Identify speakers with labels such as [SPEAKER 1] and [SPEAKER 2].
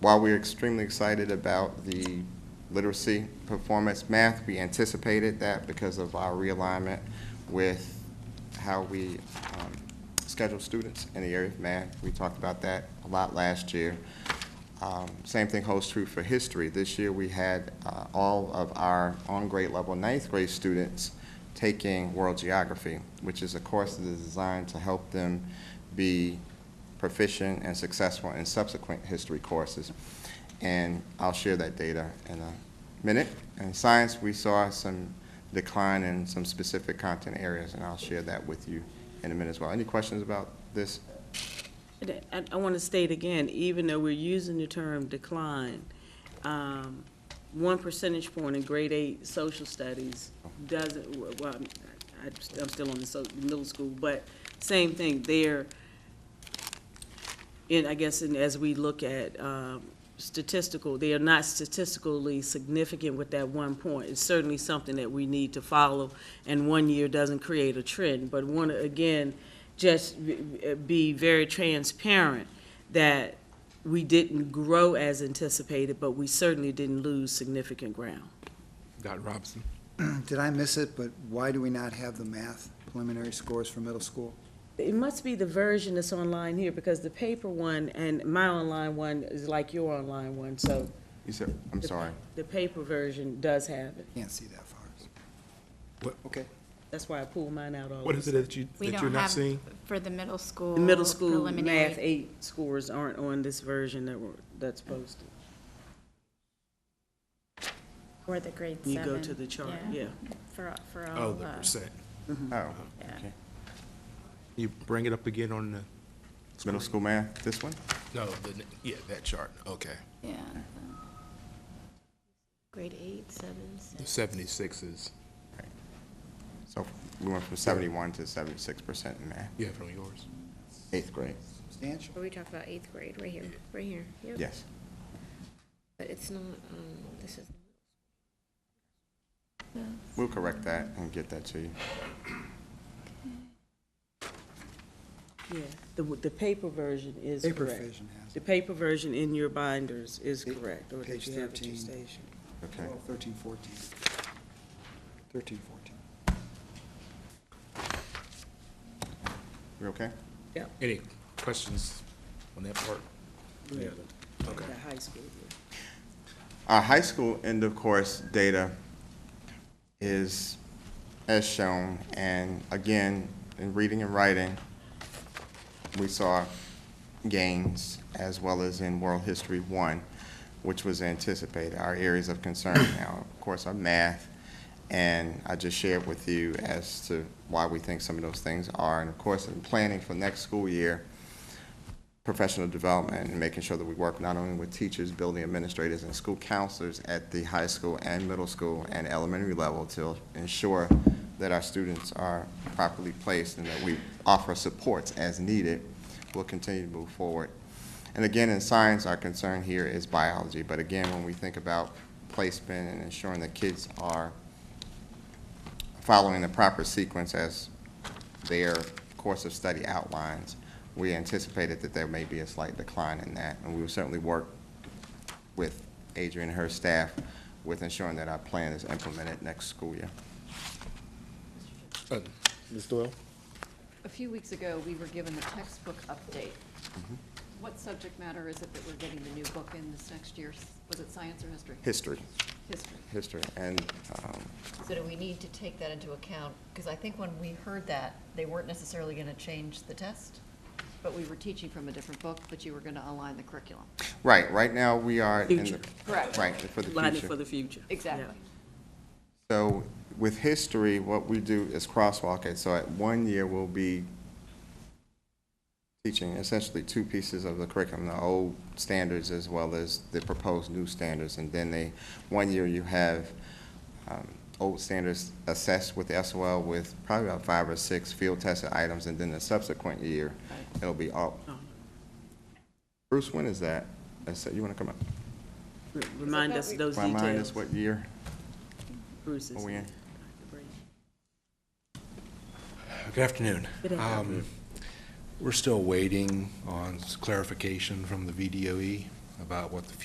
[SPEAKER 1] While we're extremely excited about the literacy performance math, we anticipated that because of our realignment with how we um, schedule students in the area of math. We talked about that a lot last year. Um, Same thing holds true for history. This year, we had uh, all of our on-grade level ninth grade students taking world geography, which is a course that is designed to help them be proficient and successful in subsequent history courses. And I'll share that data in a minute. In science, we saw some decline in some specific content areas, and I'll share that with you in a minute as well. Any questions about this?
[SPEAKER 2] And I, I want to state again, even though we're using the term decline, um, one percentage point in grade eight social studies doesn't, w- well, I'm- I- I'm still on the so, middle school, but same thing, there. And I guess, and as we look at, um, statistical, they are not statistically significant with that one point. It's certainly something that we need to follow, and one year doesn't create a trend. But one, again, just b- b- be very transparent that we didn't grow as anticipated, but we certainly didn't lose significant ground.
[SPEAKER 3] Dr. Robinson.
[SPEAKER 4] Did I miss it, but why do we not have the math preliminary scores for middle school?
[SPEAKER 2] It must be the version that's online here, because the paper one and my online one is like your online one, so.
[SPEAKER 1] You said, I'm
[SPEAKER 2] the-
[SPEAKER 1] sorry.
[SPEAKER 2] The paper version does have it.
[SPEAKER 4] Can't see that far.
[SPEAKER 3] What-
[SPEAKER 4] Okay.
[SPEAKER 2] That's why I pulled mine out all.
[SPEAKER 3] What is it that you,
[SPEAKER 5] We
[SPEAKER 3] that
[SPEAKER 5] don't
[SPEAKER 3] you're not
[SPEAKER 5] have
[SPEAKER 3] seeing?
[SPEAKER 5] For the middle school.
[SPEAKER 2] The middle school math
[SPEAKER 5] preliminary.
[SPEAKER 2] eight scores aren't on this version that were, that's posted.
[SPEAKER 5] Or the grade seven.
[SPEAKER 2] You go to the chart, yeah.
[SPEAKER 5] For, for all.
[SPEAKER 3] Oh, the
[SPEAKER 5] uh,
[SPEAKER 3] percent.
[SPEAKER 1] Oh,
[SPEAKER 5] yeah.
[SPEAKER 1] okay.
[SPEAKER 3] You bring it up again on the,
[SPEAKER 1] Middle school math, this one?
[SPEAKER 3] no, the, yeah, that chart, okay.
[SPEAKER 5] Yeah. the Grade eight, seven,
[SPEAKER 3] The
[SPEAKER 5] six.
[SPEAKER 3] seventy-sixes,
[SPEAKER 1] So we went from 71 to 76% in math,
[SPEAKER 3] you have it on yours.
[SPEAKER 1] eighth grade.
[SPEAKER 4] Substantial.
[SPEAKER 6] Are we talking about eighth grade, right here, right here? Yep.
[SPEAKER 1] Yes.
[SPEAKER 6] But it's not, um, this is,
[SPEAKER 1] We'll correct that and get that to you.
[SPEAKER 2] Yeah, the, the paper version is
[SPEAKER 4] Paper
[SPEAKER 2] correct.
[SPEAKER 4] vision has
[SPEAKER 2] The
[SPEAKER 4] it.
[SPEAKER 2] paper version in your binders is
[SPEAKER 4] Pa-
[SPEAKER 2] correct, or if
[SPEAKER 4] page
[SPEAKER 2] you have it at your
[SPEAKER 4] 13.
[SPEAKER 2] station.
[SPEAKER 1] Okay.
[SPEAKER 4] 12, 13, 14. 13, 14.
[SPEAKER 1] You okay?
[SPEAKER 2] Yep,
[SPEAKER 3] Any questions on that part?
[SPEAKER 2] Yeah.
[SPEAKER 3] Okay.
[SPEAKER 2] the high school, yeah.
[SPEAKER 1] Our high school end of course data is as shown, and again, in reading and writing, we saw gains as well as in World History One, which was anticipated. Our areas of concern now, of course, are math, and I just shared with you as to why we think some of those things are. And of course, in planning for next school year, professional development and making sure that we work not only with teachers, building administrators, and school counselors at the high school and middle school and elementary level to ensure that our students are properly placed and that we offer supports as needed, we'll continue to move forward. And again, in science, our concern here is biology, but again, when we think about placement and ensuring that kids are following the proper sequence as their course of study outlines, we anticipated that there may be a slight decline in that, and we will certainly work with Adrian and her staff with ensuring that our plan is implemented next school year.
[SPEAKER 3] Uh, Ms. Doyle?
[SPEAKER 7] A few weeks ago, we were given the textbook update. What subject matter is it that we're getting the new book in this next year? Was it science or history?
[SPEAKER 1] History,
[SPEAKER 7] History.
[SPEAKER 1] history, and, um,
[SPEAKER 7] So do we need to take that into account? Because I think when we heard that, they weren't necessarily going to change the test, but we were teaching from a different book, but you were going to align the curriculum.
[SPEAKER 1] right, right now, we are in the.
[SPEAKER 2] Future.
[SPEAKER 7] Correct.
[SPEAKER 1] Right, for the
[SPEAKER 2] Line it for
[SPEAKER 1] future.
[SPEAKER 2] the future.
[SPEAKER 7] Exactly.
[SPEAKER 1] So with history, what we do is crosswalk it, so at one year, we'll be teaching essentially two pieces of the curriculum, the old standards as well as the proposed new standards. And then they, one year you have um, old standards assessed with SOL with probably about five or six field tested items. And then the subsequent year, it'll be all.
[SPEAKER 2] Oh.
[SPEAKER 1] Bruce, when is that? I said, you want to come up?
[SPEAKER 2] Yeah. Remind us of those
[SPEAKER 1] Remind us
[SPEAKER 2] details,
[SPEAKER 1] what year?
[SPEAKER 2] Bruce is.
[SPEAKER 1] are we in?
[SPEAKER 8] Good afternoon.
[SPEAKER 2] Good afternoon.
[SPEAKER 8] Um, We're still waiting on s- clarification from the VDOE
[SPEAKER 3] E about what the